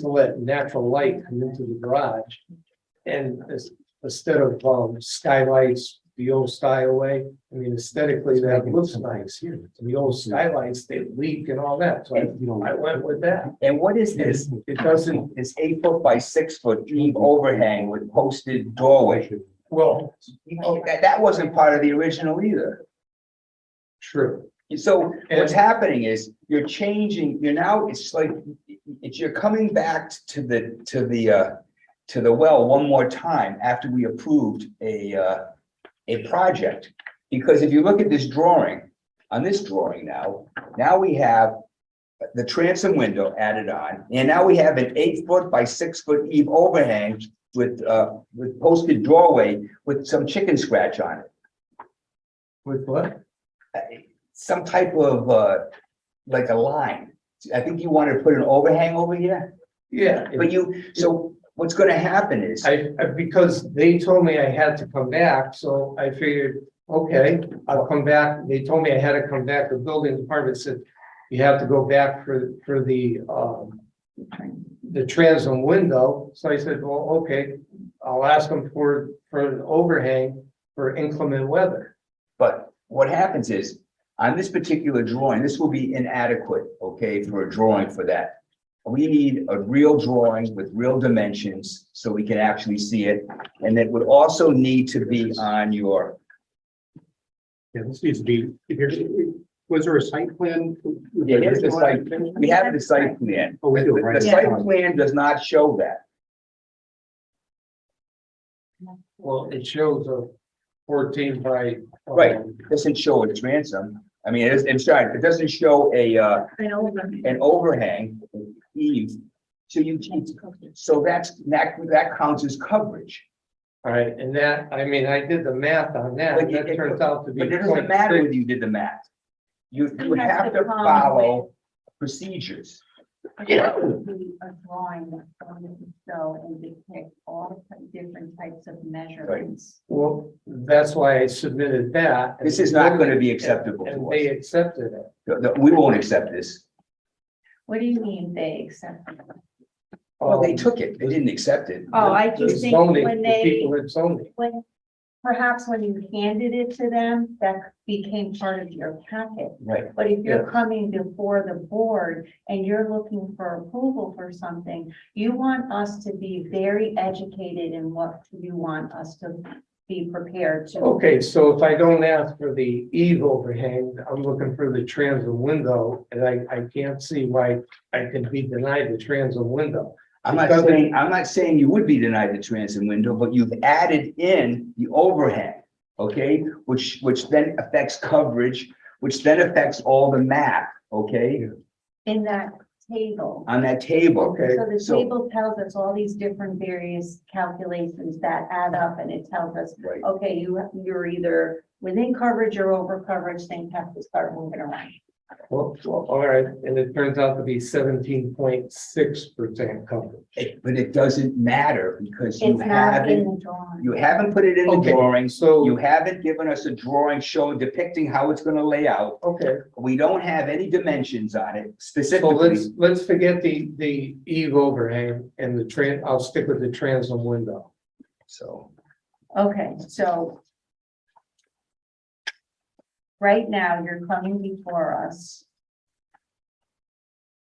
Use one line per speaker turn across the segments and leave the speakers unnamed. to let natural light come into the garage. And as- instead of um, skylights, the old style way, I mean aesthetically, that looks nice.
here.
The old skylights, they leak and all that, so I- I went with that.
And what is this? It doesn't, it's eight foot by six foot deep overhang with posted doorway.
Well,
Oh, That, that wasn't part of the original either.
true.
And So what's happening is you're changing, you're now, it's like, it's, you're coming back to the, to the, uh, to the well one more time after we approved a, uh, a project. Because if you look at this drawing, on this drawing now, now we have the transom window added on, and now we have an eight foot by six foot eve overhang with, uh, with posted doorway with some chicken scratch on it.
With what?
Some type of, uh, like a line. I think you wanted to put an overhang over here,
Yeah.
but you, so what's gonna happen is,
I, I- because they told me I had to come back, so I figured, okay, I'll come back. They told me I had to come back. The building department said, you have to go back for, for the, um, the transom window. So I said, well, okay, I'll ask them for, for an overhang for inclement weather.
But what happens is, on this particular drawing, this will be inadequate, okay, for a drawing for that. We need a real drawing with real dimensions, so we can actually see it, and it would also need to be on your,
Yeah, this needs to be, here, was there a site plan?
Yeah, here's the site. we have the site plan.
Oh, we do,
The
right.
site plan does not show that,
Well, it shows a fourteen by. um,
Right. doesn't show a transom, I mean, it's, it's, sorry, it doesn't show a, uh,
I know, but-
an overhang, an eave. So you, can't- so that's, that, that counts as coverage.
All right, and that, I mean, I did the math on that,
But
and that
it-
turns out to be.
But it doesn't
0.6.
matter whether you did the math. You, you
You have
have
to
to
come
follow procedures.
Be A drawing that's going to show and depict all the different types of measurements.
Well, that's why I submitted that.
This is not gonna be acceptable
And
to
they
us.
accepted it.
The- the- We won't accept this.
What do you mean they accept? it?
Well, they
Um,
took it. They didn't accept it.
Oh, I
the
keep thinking
zoning,
when
the
they,
People in zoning,
when, perhaps when you handed it to them, that became part of your packet.
Right.
But if you're coming before the board and you're looking for approval for something, you want us to be very educated in what you want us to be prepared to.
okay, so if I don't ask for the eve overhang, I'm looking for the transom window, and I, I can't see why I can be denied the transom window.
I'm not
Because they-
saying, I'm not saying you would be denied the transom window, but you've added in the overhang. Okay, which, which then affects coverage, which then affects all the math, okay,
in that table.
on that table.
Okay,
So the
so-
table tells us all these different various calculations that add up and it tells us,
Right.
okay, you, you're either within coverage or over coverage, things have to start moving around.
well, well, all right, and it turns out to be seventeen point six percent coverage.
It- But it doesn't matter because you
It's not in
haven't,
the drawing.
you haven't put it in the
Okay.
drawings. You
So,
haven't given us a drawing showing depicting how it's gonna lay out.
okay,
We don't have any dimensions on it
so let's,
specifically.
let's forget the, the eve overhang and the tran, I'll stick with the transom window.
So,
Okay, so right now, you're coming before us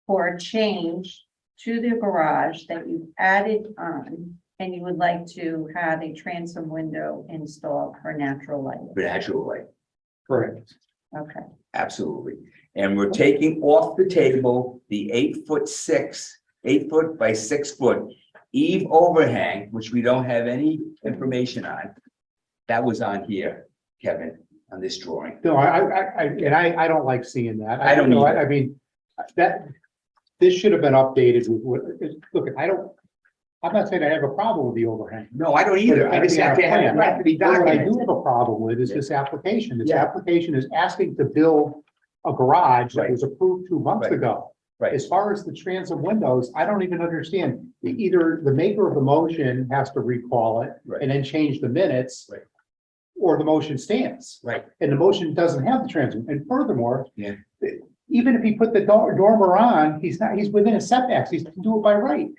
for a change to the garage that you've added on, and you would like to have a transom window installed for natural light.
naturally,
Correct.
Okay,
absolutely. And we're taking off the table the eight foot six, eight foot by six foot eve overhang, which we don't have any information on. That was on here, Kevin, on this drawing.
No, I, I, I, and I, I don't like seeing that.
I don't
know, I
either.
I mean, that, this should have been updated with, what- look, I don't, I'm not saying I have a problem with the overhang.
No, I don't either. I just have to have, it have to be
But What I do
documented.
have a problem with is this application. This
Yeah.
application is asking to build a garage that
Right.
was approved two months
Right.
ago.
Right.
As far as the transom windows, I don't even understand. Either the maker of the motion has to recall it
Right.
and then change the minutes.
Right.
Or the motion stands.
Right.
And the motion doesn't have the transom. And furthermore.
Yeah.
th-
even if he put the dor- dormer on, he's not, he's within his setbacks, he's to do it by right.